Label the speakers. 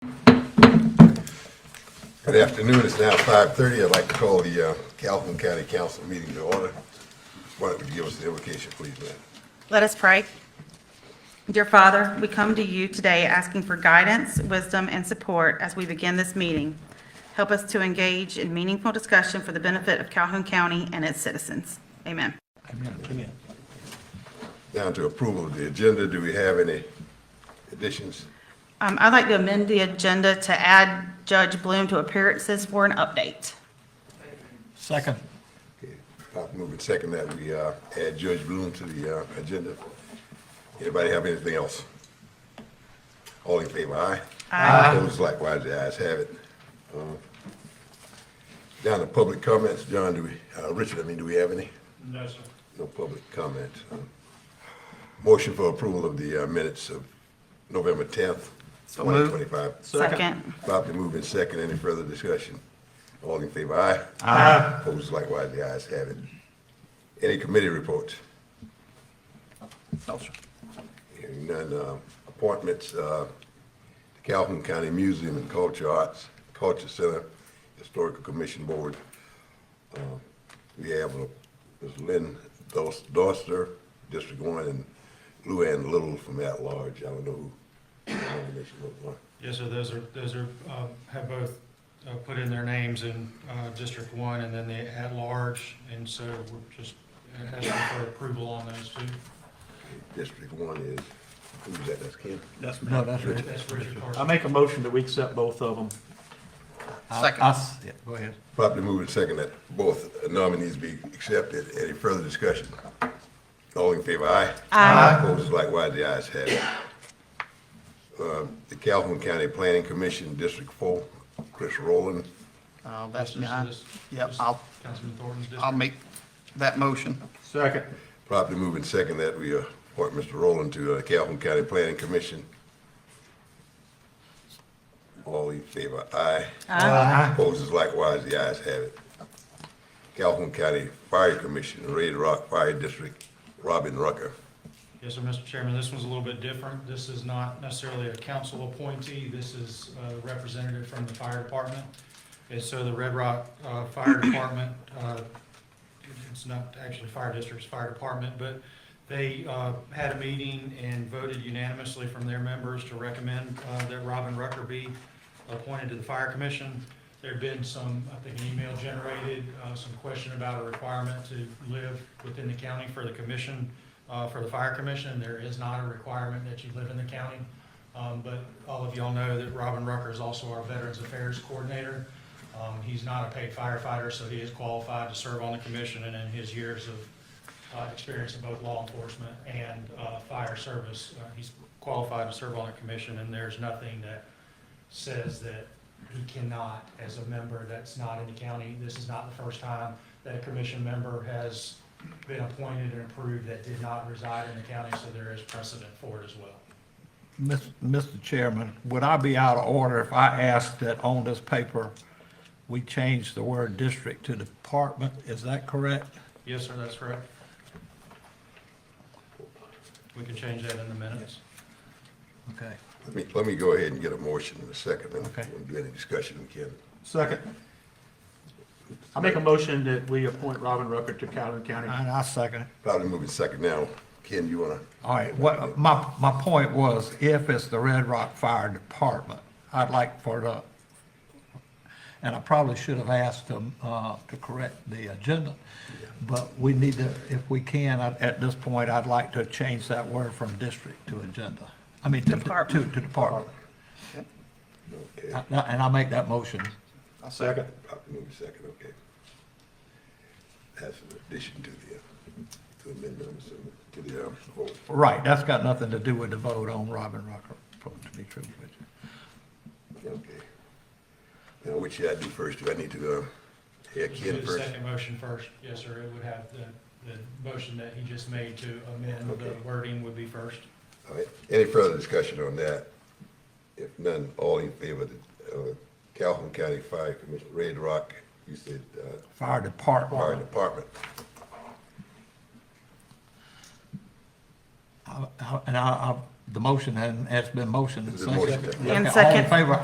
Speaker 1: Good afternoon, it's now five thirty, I'd like to call the uh, Calhoun County Council meeting to order. Why don't you give us the invocation, please, ma'am?
Speaker 2: Let us pray. Dear Father, we come to you today asking for guidance, wisdom, and support as we begin this meeting. Help us to engage in meaningful discussion for the benefit of Calhoun County and its citizens. Amen.
Speaker 1: Down to approval of the agenda, do we have any additions?
Speaker 2: Um, I'd like to amend the agenda to add Judge Bloom to appearances for an update.
Speaker 3: Second.
Speaker 1: Pop moving second that we uh, add Judge Bloom to the uh, agenda. Anybody have anything else? All in favor, aye? Aye. Opposed, likewise, the ayes have it. Uh, Down to public comments, John, do we, uh, Richard, I mean, do we have any?
Speaker 4: No, sir.
Speaker 1: No public comment. Um, Motion for approval of the uh, minutes of November 10th,
Speaker 3: So moved.
Speaker 1: 2025.
Speaker 2: Second.
Speaker 1: Properly moved in second. Any further discussion? All in favor, aye?
Speaker 3: Aye.
Speaker 1: Opposed likewise, the ayes have it. Any committee reports?
Speaker 3: No, sir.
Speaker 1: Hearing none, uh, appointments, uh, Calhoun County Museum and Culture Arts, Culture Center, Historical Commission Board. Uh, We have uh, Ms. Lynn Dos- Doster, District One, and Luann Little from at-large. I don't know who the nomination was on.
Speaker 4: Yes, sir, those are, those are, um, have both uh, put in their names in uh, District One and then the at-large, and so we're just asking for approval on those two.
Speaker 1: District One is, who's that, that's Ken?
Speaker 5: That's
Speaker 3: No, that's right.
Speaker 4: That's Richard
Speaker 5: I
Speaker 4: Carson.
Speaker 5: make a motion that we accept both of them.
Speaker 3: Second. Yeah, go ahead.
Speaker 1: Properly moved and second that both nominees be accepted. Any further discussion? All in favor, aye? Aye. Opposed, likewise, the ayes have it. Um, The Calhoun County Planning Commission, District Four, Chris Rowland.
Speaker 6: Uh,
Speaker 4: This
Speaker 6: That's
Speaker 4: is-
Speaker 6: me. I-
Speaker 4: this-
Speaker 6: Yep,
Speaker 4: this is
Speaker 6: I'll,
Speaker 4: Councilman Thornton's
Speaker 6: I'll
Speaker 4: district.
Speaker 6: make that motion.
Speaker 5: Second.
Speaker 1: Properly moved and second that we appoint Mr. Rowland to uh, Calhoun County Planning Commission. All in favor, aye? Aye. Opposed, likewise, the ayes have it. Calhoun County Fire Commission, Red Rock Fire District, Robin Rucker.
Speaker 4: Yes, sir, Mr. Chairman, this one's a little bit different. This is not necessarily a council appointee. This is a representative from the fire department. And so the Red Rock uh, Fire Department, uh, it's not actually fire district's fire department, but they uh, had a meeting and voted unanimously from their members to recommend uh, that Robin Rucker be appointed to the fire commission. There'd been some, I think, an email generated, uh, some question about a requirement to live within the county for the commission, uh, for the fire commission. There is not a requirement that you live in the county. Um, But all of y'all know that Robin Rucker is also our Veterans Affairs Coordinator. Um, He's not a paid firefighter, so he is qualified to serve on the commission, and in his years of uh, experience in both law enforcement and uh, fire service, uh, he's qualified to serve on the commission, and there's nothing that says that he cannot, as a member that's not in the county, this is not the first time that a commission member has been appointed and approved that did not reside in the county, so there is precedent for it as well.
Speaker 3: Mis- Mr. Chairman, would I be out of order if I asked that on this paper, we change the word district to department? Is that correct?
Speaker 4: Yes, sir, that's correct. We can change that in the minutes.
Speaker 3: Okay.
Speaker 1: Let me, let me go ahead and get a motion in a second, and
Speaker 3: Okay.
Speaker 1: we'll do any discussion we can.
Speaker 3: Second.
Speaker 5: I make a motion that we appoint Robin Rucker to Calhoun County.
Speaker 3: And I second it.
Speaker 1: Probably moving second now. Ken, you wanna,
Speaker 3: All right, what, my, my point was, if it's the Red Rock Fire Department, I'd like for the, and I probably should have asked them, uh, to correct the agenda, but we need to, if we can, at, at this point, I'd like to change that word from district to agenda. I mean, to, to, to
Speaker 2: Department.
Speaker 3: department.
Speaker 1: okay,
Speaker 3: And I- and I'll make that motion.
Speaker 5: Second.
Speaker 1: probably moving second, okay. That's an addition to the, uh, to the amendment, I'm assuming, to the, um, vote.
Speaker 3: Right, that's got nothing to do with the vote on Robin Rucker, to be true with you.
Speaker 1: okay. Now, which should I do first? Do I need to, uh, yeah,
Speaker 4: Do
Speaker 1: Ken
Speaker 4: the
Speaker 1: first?
Speaker 4: second motion first, yes, sir, it would have the, the motion that he just made to amend the
Speaker 1: Okay.
Speaker 4: wording would be first.
Speaker 1: All right, any further discussion on that? If none, all in favor of the, uh, Calhoun County Fire Commission, Red Rock, you said, uh,
Speaker 3: Fire
Speaker 1: Fire
Speaker 3: Department,
Speaker 1: Department.
Speaker 3: I- I- and I, I, the motion hadn't- has been motioned and
Speaker 1: There's a motion.
Speaker 3: seconded.
Speaker 2: And
Speaker 3: Okay, All in
Speaker 2: second.
Speaker 3: favor,